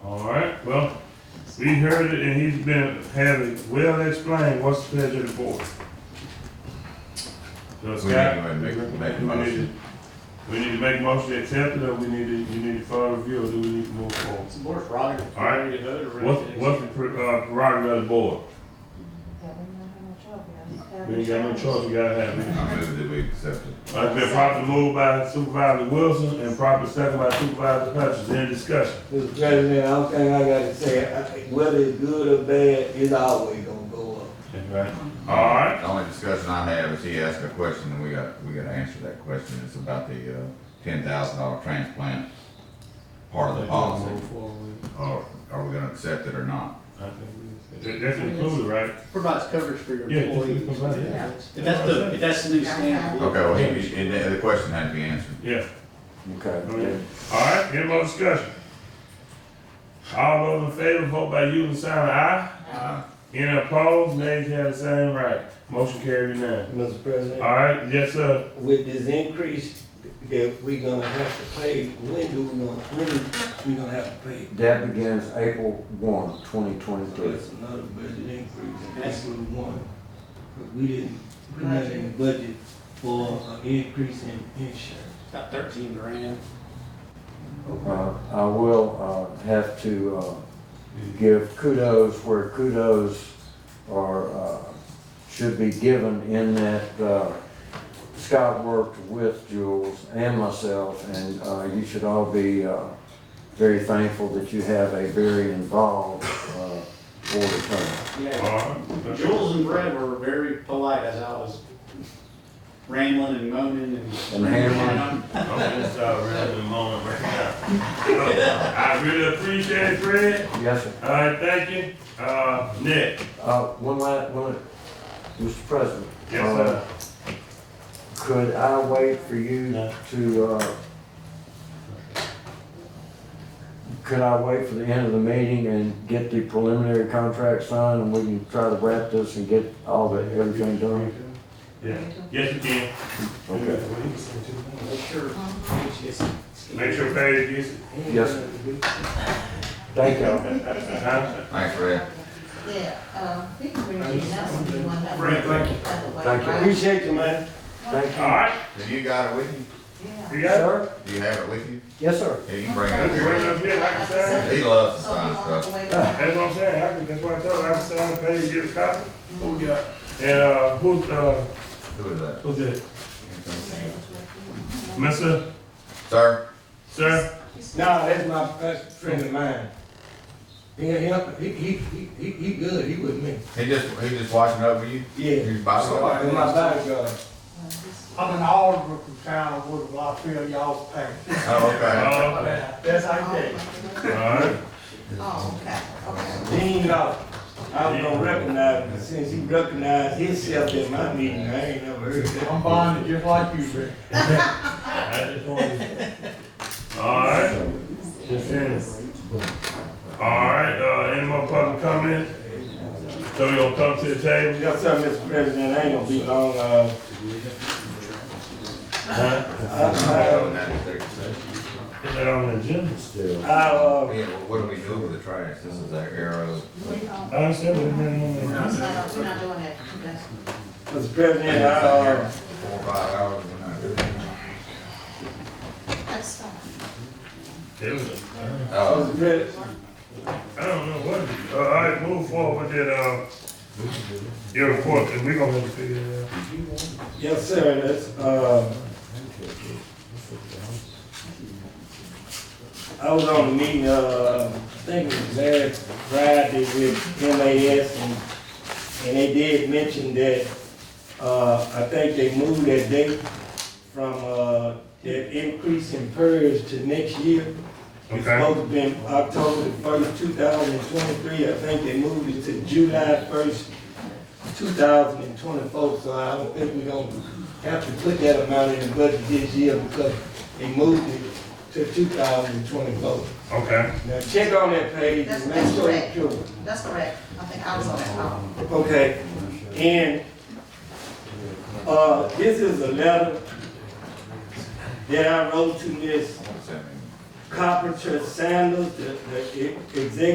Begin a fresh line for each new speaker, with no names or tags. We heard it and he's been having well explained what's the pleasure of the board. So
We need to go
Scott,
ahead and make, make the
we need
motion.
we need to make a motion to accept it or we need to, you need to further review or do we need to move forward?
It's more prerogative.
All right.
Ready to vote or ready
What's,
to
what's the pre- uh, prerogative of the board?
Yeah, we don't have no trouble, we don't have
We ain't got no choice, we gotta have it.
I move that we accept it.
Uh, It's been properly moved by Supervisor Wilson and properly seconded by Supervisor Hutchins. Any discussion?
Mr. President, I don't think I gotta say, I think whether it's good or bad, it's always gonna go up.
Right. All right,
The only discussion I have is he asked a question, and we got, we gotta answer that question, it's about the, uh, ten thousand dollar transplant part of the policy. Or, are we gonna accept it or not?
That- that's included, right?
Provides coverage for your
Yeah, it just
employees.
provides it.
Yeah.
If that's the, if that's the new standard.
Okay, well, he, he- the the question had to be answered.
Yeah.
Okay.
All right, any more discussion? All those in favor, vote by using sign of aye.
Uh,
Any opposed, nays have the same right. Motion carried unanimous.
Mr.
All
President,
right, yes, sir.
with this increase that we gonna have to pay, when do we gonna, when we gonna have to pay?
That begins April one, twenty
So
twenty-three.
that's another budget increase, and that's what we want. But we didn't, put that in the budget for an increase in insurance.
About thirteen grand.
Uh, I will, uh, have to, uh, give kudos where kudos are, uh, should be given in that, uh, Scott worked with Jules and myself, and, uh, you should all be, uh, very thankful that you have a very involved, uh, board attorney.
All
Yeah.
right.
Jules and Brett were very polite as I was rambling and moaning and.
And hammering.
I'm gonna start running in a moment right now. Uh, I really appreciate it, Fred.
Yes, sir.
All right, thank you. Uh, Nick?
Uh, one la one, Mr. President.
Yes,
uh,
sir.
Could I wait for you
No.
to, uh, could I wait for the end of the meeting and get the preliminary contract signed and we can try to wrap this and get all the, everything done?
Yeah. Yes, you can.
Okay.
Make sure, it's just-
Make sure Paige gets it.
Yes, sir. Thank you.
Uh-huh.
Thanks, Red.
Yeah, uh, we can bring it up if you want.
Frank, thank you.
Thank you.
Appreciate you, man.
Thank
All
you.
right,
Have you got it with you?
you.
you got it?
Sir?
Do you have it with you?
Yes, sir.
Yeah, you can bring
You bring it
it
up here, I can sign it.
up. He loves to sign stuff.
That's what I'm saying, I can, that's what I told her, I can sign it, Paige, get a copy. Who we got? And, uh, who's, uh,
Who is that?
who's that? Mister,
Sir,
sir?
No, that's my best friend of mine. He, he, he, he, he, he good, he with me.
he just, he just watching over you?
Yeah.
He's bodyguard?
That's my bodyguard.
I'm an alderman from town of Woodville, I feel y'all's pain.
Oh, okay.
Uh,
That's how you think.
all right.
Oh, okay, okay.
Dean Law. I was gonna recognize him, since he recognized himself at my meeting, I ain't never heard that.
I'm bonded just like you, Rick.
I just wanted. All right. All right, uh, any more public comment? So we gonna come to the table?
Yes, sir, Mr. President, I ain't gonna be long, uh. I, uh,
Is that on the agenda?
I, uh,
Oh, Yeah, well, what do we do with the trash? This is our arrow.
We don't,
I understand what you're doing on the agenda.
we're not, we're not doing that. That's-
Mr. President, I, uh,
Four, or five hours, we're not doing it.
That's fine.
It was a-
Oh,
Mr. President,
I don't know what, uh, all right, move forward with that, uh, your report, and we gonna have to figure it out.
yes, sir, that's, uh. I was on a meeting, uh, I think it was last Friday with MAS and, and they did mention that, uh, I think they moved that date from, uh, that increase in PERS to next year. It's
Okay.
supposed to be October the first, two thousand and twenty-three, I think they moved it to July first, two thousand and twenty-four, so I don't think we're gonna have to put that amount in the budget this year because they moved it to two thousand and twenty-four.
Okay,
Now, check on that page
That's-
and
that's
make sure
correct.
it's true.
That's correct. I think I was on that call.
Okay, and, uh, this is a letter that I wrote to Miss
what's that mean?
Carpenter Sanders, the, the e- executive